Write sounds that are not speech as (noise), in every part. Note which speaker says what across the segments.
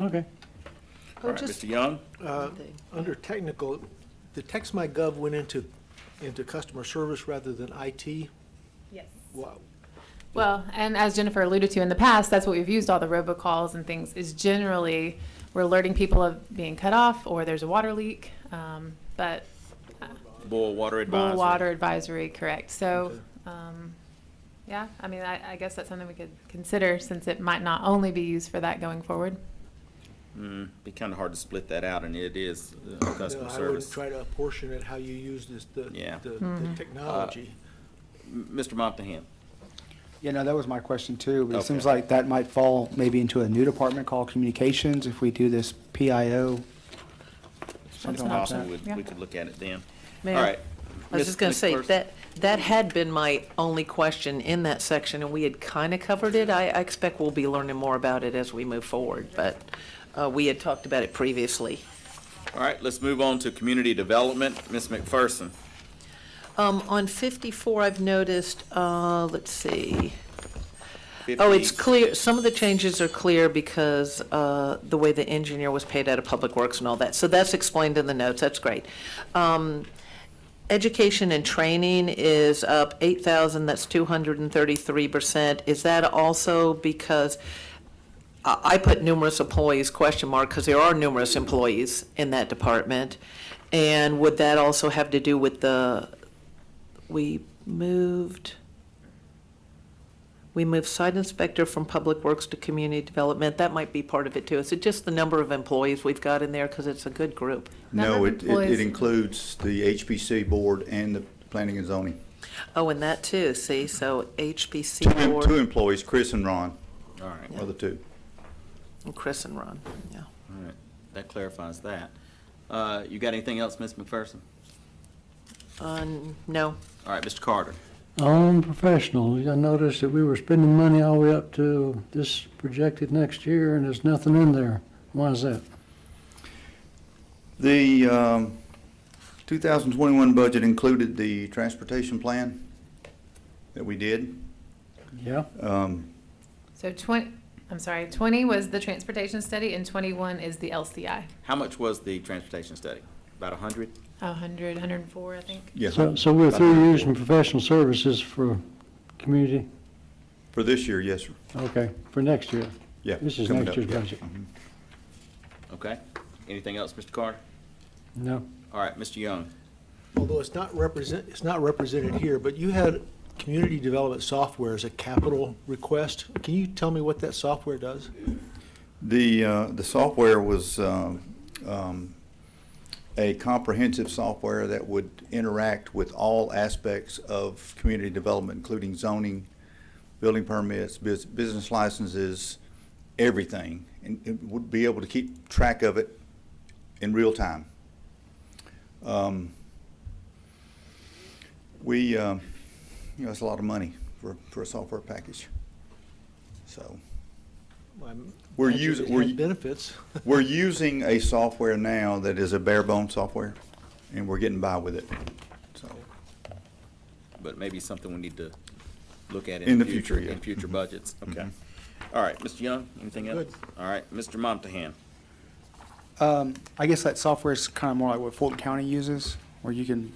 Speaker 1: Okay.
Speaker 2: All right,
Speaker 3: just-
Speaker 2: Mr. Young?
Speaker 4: Under technical, the text my gov went into, into customer service rather than IT.
Speaker 5: Yes.
Speaker 4: Wow.
Speaker 6: Well, and as Jennifer alluded to in the past, that's what we've used all the robocalls and things is generally we're alerting people of being cut off or there's a water leak. Um, but
Speaker 2: Boil water
Speaker 6: Bull
Speaker 2: advisory.
Speaker 6: water advisory, correct. So,
Speaker 4: Okay.
Speaker 6: um, yeah, I mean, I, I guess that's something we could consider since it might not only be used for that going forward.
Speaker 2: Mm, Be kind of hard to split that out, and it is uh,
Speaker 4: No,
Speaker 2: customer
Speaker 4: I would
Speaker 2: service.
Speaker 4: try to apportion it how you use this, the,
Speaker 2: Yeah.
Speaker 4: the- the technology.
Speaker 2: M- Mr. Montahan?
Speaker 1: Yeah, no, that was my question too, but it seems
Speaker 2: Okay.
Speaker 1: like that might fall maybe into a new department called communications if we do this PIO.
Speaker 2: It's
Speaker 1: Something like
Speaker 2: possible
Speaker 1: that.
Speaker 2: we-
Speaker 6: Yeah.
Speaker 2: we could look at it then. All
Speaker 3: Mayor,
Speaker 2: right.
Speaker 3: I
Speaker 2: Ms.
Speaker 3: was just going to say,
Speaker 2: McPherson?
Speaker 3: that, that had been my only question in that section, and we had kind of covered it. I, I expect we'll be learning more about it as we move forward, but uh, we had talked about it previously.
Speaker 2: All right, let's move on to community development. Ms. McPherson?
Speaker 3: Um, On 54, I've noticed, uh, let's see, oh, it's
Speaker 2: 50
Speaker 3: clear, some of the changes are clear because uh, the way the engineer was paid out of Public Works and all that. So that's explained in the notes, that's great. Um, Education and training is up 8,000, that's 233%. Is that also because, I I put numerous employees question mark because there are numerous employees in that department. And would that also have to do with the, we moved, we moved site inspector from Public Works to Community Development? That might be part of it too. Is it just the number of employees we've got in there because it's a good group?
Speaker 7: No,
Speaker 6: Number of
Speaker 7: it, it-
Speaker 6: employees-
Speaker 7: it includes the HPC board and the planning and zoning.
Speaker 3: Oh, and that too, see, so HPC
Speaker 7: Two, em- two
Speaker 3: board
Speaker 7: employees, Chris and Ron
Speaker 2: All right,
Speaker 7: are the two.
Speaker 3: and Chris and Ron, yeah.
Speaker 2: all right. That clarifies that. Uh, You got anything else, Ms. McPherson?
Speaker 3: Uh, no,
Speaker 2: All right, Mr. Carter?
Speaker 8: On professional, I noticed that we were spending money all the way up to this projected next year, and there's nothing in there. Why is that?
Speaker 7: The um, 2021 budget included the transportation plan that we did.
Speaker 8: Yeah,
Speaker 7: Um,
Speaker 6: So twenty, I'm sorry, twenty was the transportation study and twenty-one is the LCI.
Speaker 2: How much was the transportation study? About a hundred?
Speaker 6: A hundred, hundred and four, I think.
Speaker 7: Yes,
Speaker 8: so, so we're through using professional services for community,
Speaker 7: for this year, yes, sir.
Speaker 8: okay, for next year.
Speaker 7: Yeah.
Speaker 8: This is
Speaker 7: coming up,
Speaker 8: next year's
Speaker 7: yeah. Mm-hmm.
Speaker 8: budget.
Speaker 2: Okay. Anything else, Mr. Carter?
Speaker 8: No,
Speaker 2: All right, Mr. Young?
Speaker 4: Although it's not represent, it's not represented here, but you had community development software as a capital request. Can you tell me what that software does?
Speaker 7: The, uh, the software was um, um, a comprehensive software that would interact with all aspects of community development, including zoning, building permits, bus- business licenses, everything, and it would be able to keep track of it in real time. Um, We, um, you know, it's a lot of money for, for a software package, so.
Speaker 4: I'm-
Speaker 7: We're
Speaker 4: I think
Speaker 7: using-
Speaker 4: it
Speaker 7: we're
Speaker 4: had
Speaker 7: u-
Speaker 4: Benefits. (laughs)
Speaker 7: We're using a software now that is a bare bone software, and we're getting by with it. So,
Speaker 2: But maybe something we need to look at
Speaker 7: In
Speaker 2: in
Speaker 7: the
Speaker 2: the future,
Speaker 7: future, yeah. Mm-hmm.
Speaker 2: in future budgets. Okay. All right, Mr. Young, anything else?
Speaker 4: Good.
Speaker 2: All right, Mr. Montahan?
Speaker 1: Um, I guess that software is kind of more like what Fulton County uses, where you can,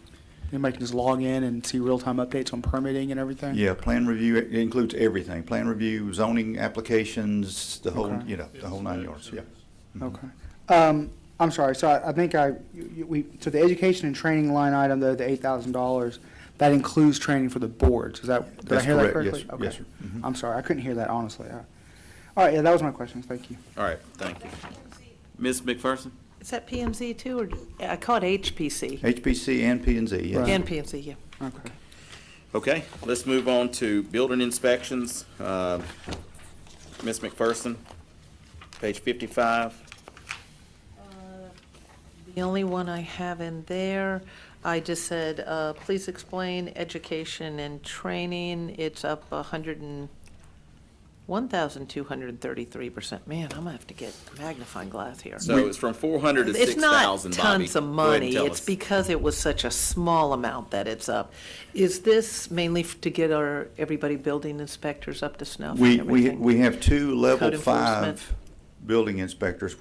Speaker 1: anybody can just log in and see real-time updates on permitting and everything.
Speaker 7: yeah, plan review, it includes everything, plan review, zoning applications, the whole,
Speaker 1: Okay.
Speaker 7: you know, the whole nine yards, yeah.
Speaker 1: Okay. Um, I'm sorry, so I, I think I, you- you- we, so the education and training line item, though, the eight thousand dollars, that includes training for the boards, is that, did I
Speaker 7: That's
Speaker 1: hear that
Speaker 7: correct.
Speaker 1: correctly?
Speaker 7: Yes,
Speaker 1: Okay.
Speaker 7: yes, sir. Mhm.
Speaker 1: I'm sorry, I couldn't hear that honestly. I- All right, yeah, that was my question, thank you.
Speaker 2: All right, thank you. Ms. McPherson?
Speaker 3: Is that PMZ too, or, I call it HPC?
Speaker 7: HPC and P and Z, yes.
Speaker 1: Right.
Speaker 3: And PMZ, yeah.
Speaker 1: Okay.
Speaker 2: Okay, let's move on to building inspections. Uh, Ms. McPherson, page fifty-five.
Speaker 3: Uh, The only one I have in there, I just said, uh, please explain education and training. It's up a hundred and, one thousand two hundred and thirty-three percent. Man, I'm gonna have to get magnifying glass here.
Speaker 2: So it's from four hundred to six
Speaker 3: It's not
Speaker 2: thousand, Bobby.
Speaker 3: tons of
Speaker 2: Go ahead and
Speaker 3: money.
Speaker 2: tell
Speaker 3: It's
Speaker 2: us.
Speaker 3: because it was such a small amount that it's up. Is this mainly f- to get our, everybody building inspectors up to snuff and
Speaker 7: We, we,
Speaker 3: everything?
Speaker 7: we have two level
Speaker 3: Code enforcement.
Speaker 7: five building inspectors